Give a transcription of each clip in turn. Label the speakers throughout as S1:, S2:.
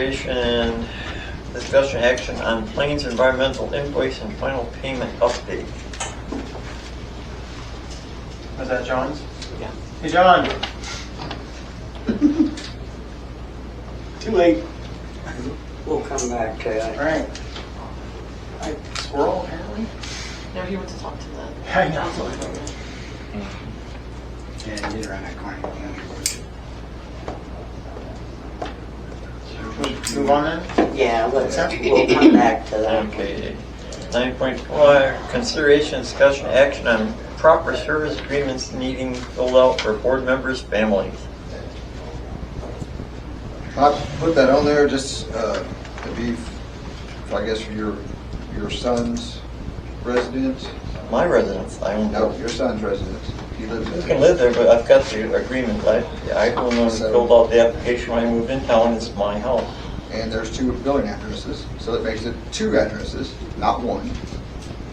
S1: consideration, discussion, action on Plains Environmental invoice and final payment update.
S2: Was that John's?
S1: Yeah.
S2: Hey, John. Too late.
S3: We'll come back to
S2: All
S3: that.
S2: right. I squirrel apparently.
S4: No, he wants to talk to the
S2: I
S4: council. member.
S3: Yeah, you're on a corner.
S2: Move on then.
S3: Yeah, let's, we'll come back to that.
S1: Okay. Nine point four, consideration, discussion, action on proper service agreements needing filled out for board members' families.
S5: I put that on there just uh, to be, I guess, for your, your son's residence.
S1: My residence, I don't
S5: No,
S1: know.
S5: your son's residence. He lives
S1: You
S5: there.
S1: can live there, but I've got the agreement, I, I don't know, filled out the application when I moved in town, it's my house.
S5: And there's two building addresses, so that makes it two addresses, not one.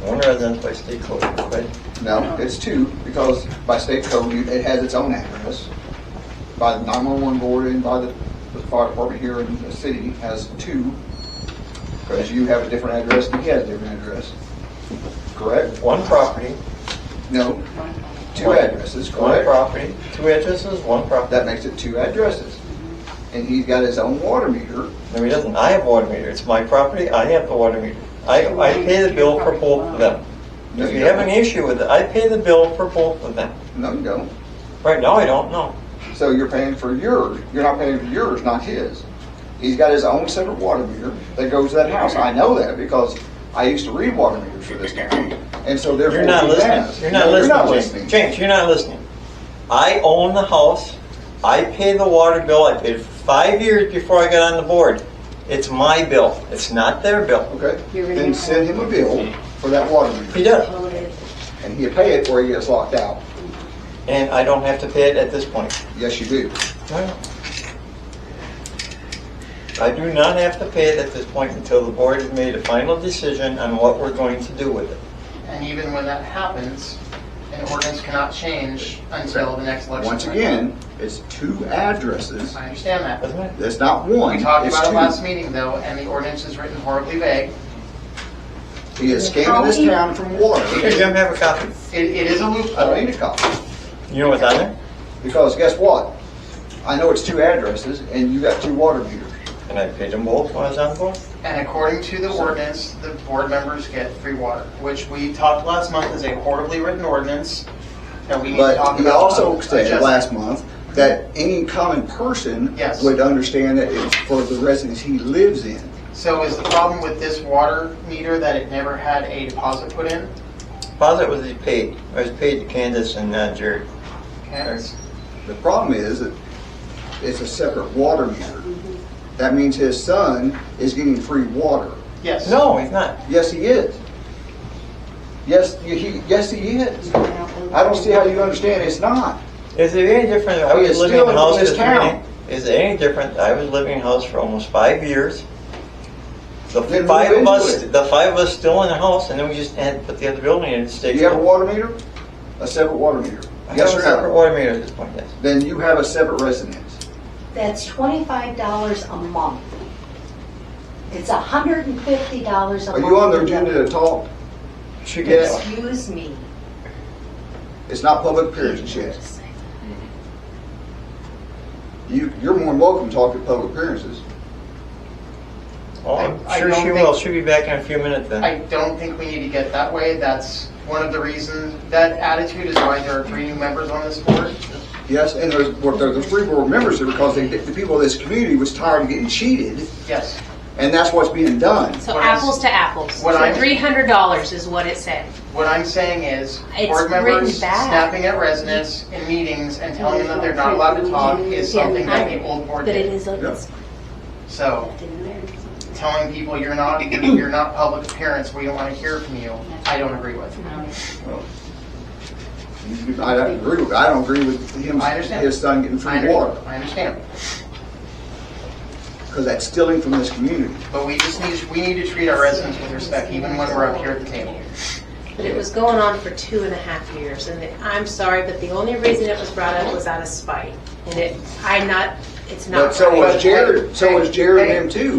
S1: One residence by state code, but
S5: No, it's two because by state code, you- it has its own address. By the 911 board and by the the fire department here in the city has two. Because you have a different address and he has a different address. Correct?
S1: one property,
S5: No, two addresses,
S1: one
S5: correct?
S1: property, two addresses, one property.
S5: That makes it two addresses. And he's got his own water meter.
S1: No, he doesn't. I have water meter. It's my property. I have the water meter. I, I pay the bill for both of them.
S5: No,
S1: If you have an
S5: don't.
S1: issue with it, I pay the bill for both of them.
S5: No, you don't.
S1: Right now, I don't know.
S5: So you're paying for yours. You're not paying for yours, not his. He's got his own separate water meter that goes to that house. I know that because I used to read water meters for this town. And so therefore.
S1: You're not
S5: he
S1: listening.
S5: has.
S1: You're not
S5: No,
S1: listening, James. James, you're not listening. I own the house. I pay the water bill. I paid five years before I got on the board. It's my bill. It's not their bill.
S5: Okay, then send him a bill for that water meter
S1: He does.
S5: and he'll pay it or he gets locked out.
S1: And I don't have to pay it at this point.
S5: Yes, you do.
S1: I do not have to pay it at this point until the board has made a final decision on what we're going to do with it.
S2: And even when that happens, an ordinance cannot change until the next election.
S5: Once
S2: cycle.
S5: again, it's two addresses.
S2: I understand that.
S1: Doesn't it?
S5: It's not one.
S2: We talked
S5: it's
S2: about it
S5: two.
S2: last meeting though, and the ordinance is written horribly vague.
S5: He is scamming this town from water.
S1: Here, Jim, have a copy.
S2: It, it is a
S5: I don't need
S2: loophole.
S5: a copy.
S1: You know what's on there?
S5: Because guess what? I know it's two addresses and you got two water meters.
S1: And I paid them both when I was on the board.
S2: And according to the ordinance, the board members get free water, which we talked last month is a horribly written ordinance that we need to
S5: But
S2: talk about.
S5: he also said
S2: adjusting.
S5: last month that any common person
S2: Yes.
S5: would understand that it's for the residence he lives in.
S2: So is the problem with this water meter that it never had a deposit put in?
S1: Deposit was paid. I was paid to Candace and uh, Jerry.
S2: Okay.
S5: The problem is that it's a separate water meter. That means his son is getting free water.
S2: Yes.
S1: No, he's not.
S5: Yes, he is. Yes, he, yes, he is. I don't see how you understand it's not.
S1: Is it any different? I
S5: He
S1: was
S5: is
S1: living in a
S5: still
S1: house.
S5: in this
S1: this
S5: town.
S1: many- Is it any different? I was living in a house for almost five years. The
S5: Then move
S1: five of
S5: into
S1: us,
S5: it.
S1: the five of us still in the house and then we just had to put the other building in and stay.
S5: Do you have a water meter? A separate water meter?
S1: I have
S5: Yes
S1: a
S5: or
S1: separate
S5: no?
S1: water meter at this point, yes.
S5: Then you have a separate residence.
S6: That's twenty-five dollars a month. It's hundred and fifty dollars a
S5: Are
S6: month.
S5: you on the agenda to talk?
S1: She
S5: Yes.
S1: gets,
S6: Excuse me.
S5: It's not public appearances yet. You, you're more than welcome to talk at public appearances.
S1: oh,
S2: I- I
S1: I'm sure
S2: don't
S1: she
S2: think-
S1: will, she'll be back in a few minutes then.
S2: I don't think we need to get that way. That's one of the reasons, that attitude is why there are three new members on this board.
S5: Yes, and there's, well, there's the three board members here because they, the people of this community was tired of getting cheated,
S2: Yes.
S5: and that's what's being done.
S7: So
S2: What I'm-
S7: apples to apples.
S2: what I'm-
S7: So three hundred dollars is what it said.
S2: What I'm saying is,
S7: It's
S2: board
S7: written
S2: members
S7: bad.
S2: snapping at residents in meetings and telling them that they're not allowed to talk is something that the old board
S8: But it
S2: did.
S8: is, a- it's
S2: So
S8: in there.
S2: telling people you're not, you're not public appearance, we don't want to hear from you, I don't agree with.
S5: I don't agree with, I don't agree with him,
S2: I understand.
S5: his son getting
S2: I
S5: free water,
S2: under- I understand.
S5: because that's stealing from this community.
S2: But we just need, we need to treat our residents with respect, even when we're up here at the table.
S7: But it was going on for two and a half years, and I'm sorry, but the only reason it was brought up was out of spite. And it, I'm not, It's not.
S5: But so
S7: right.
S5: was Jared, so was Jared and them too.